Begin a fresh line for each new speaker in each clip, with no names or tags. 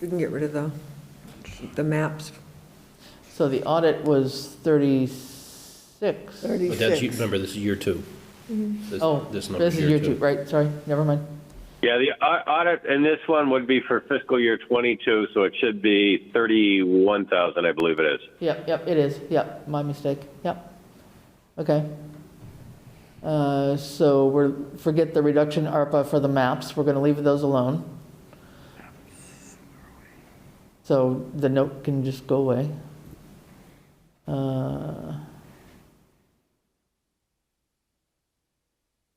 We can get rid of the, the maps.
So the audit was 36.
But that's, you-
36.
remember, this is year two. This-
Oh,
This
this
number
is year two, right, sorry, never mind.
Yeah, the au- audit, and this one would be for fiscal year 22, so it should be 31,000, I believe it is.
Yep, yep, it is, yep, my mistake, yep. Okay. Uh, So we're, forget the reduction ARPA for the maps, we're going to leave those alone. So the note can just go away. Uh,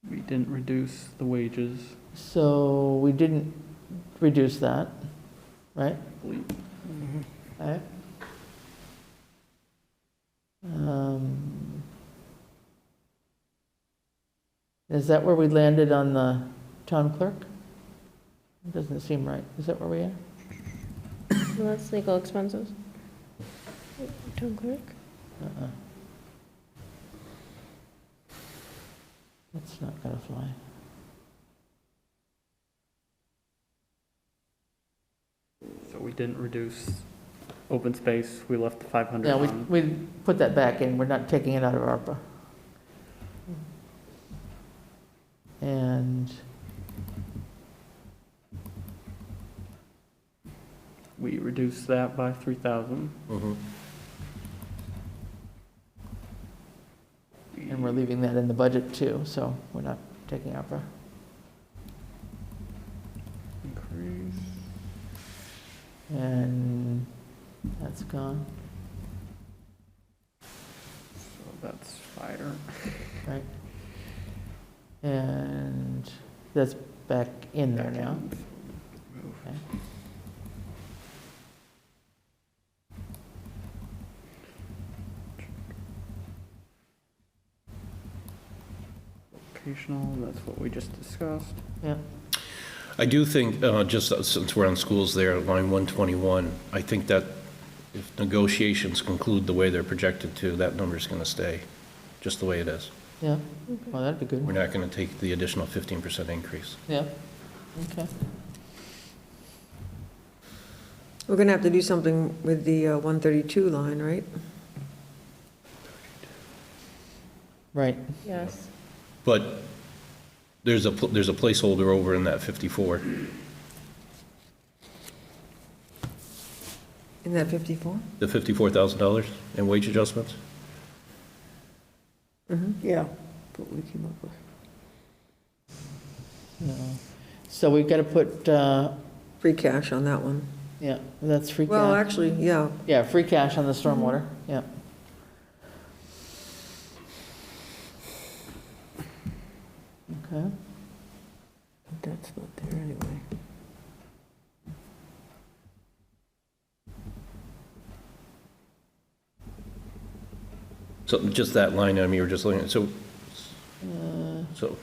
We didn't reduce the wages.
So we didn't reduce that, right? Mm-hmm. Alright. Um, Is that where we landed on the town clerk? It Doesn't seem right. Is that where we are?
Well, that's legal expenses. Town clerk?
That's not gonna fly.
So we didn't reduce open space, we left the 500
Yeah, we,
on.
we put that back in. We're not taking it out of ARPA. And
We reduced that by 3,000.
Mhm.
And we're leaving that in the budget too, so we're not taking ARPA.
Increase.
And that's gone,
So that's fire.
right? And that's back in there now. Okay.
Vocational, that's what we just discussed.
Yeah,
I do think, uh, just since we're on schools there, line 121, I think that if negotiations conclude the way they're projected to, that number's going to stay just the way it is.
yeah, well, that'd be
We're
good,
not going to take the additional 15% increase.
yeah, okay.
We're going to have to do something with the uh, 132 line, right?
Right,
Yes.
But there's a, pl- there's a placeholder over in that 54.
In that 54?
The $54,000 in wage adjustments?
Yeah, but we came up with.
no. So we've got to put, uh,
Free cash on that one.
yeah, that's free
Well,
cash,
actually, yeah,
yeah, free cash on the stormwater, yeah. Okay.
That's not there anyway.
So just that line item you were just looking at, so, so,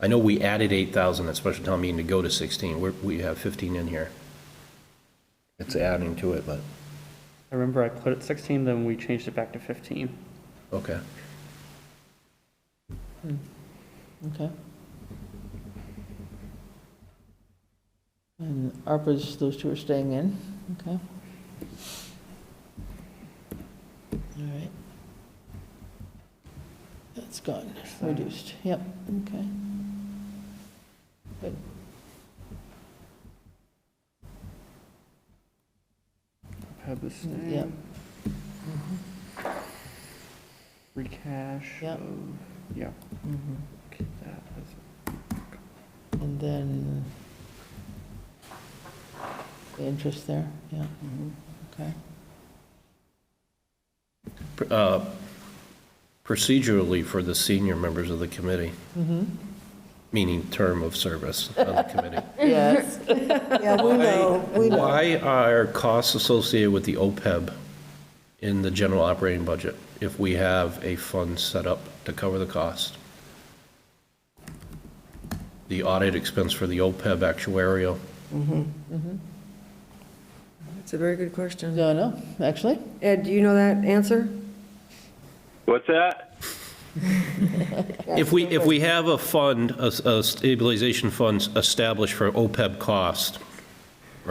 I know we added 8,000 at special town meeting to go to 16, we're, we have 15 in here. It's adding to it, but,
I remember I put it 16, then we changed it back to 15.
okay.
Okay. And ARPA's, those two are staying in, okay? All right. That's gone, reduced, yep, okay. Good.
Have the same.
Yep.
Mm-hmm. Free cash
Yep.
of, yeah,
Mhm.
keep that as
And then the interest there, yeah, okay.
Uh, Procedurally for the senior members of the committee, meaning term of service of the committee.
Yes.
Yeah, we know, we know.
Why are costs associated with the OPEB in the general operating budget if we have a fund set up to cover the cost? The audit expense for the OPEB actuarial,
it's a very good question.
No, no, actually,
Ed, do you know that answer?
What's that?
if we, if we have a fund, a a stabilization fund established for OPEB E cost,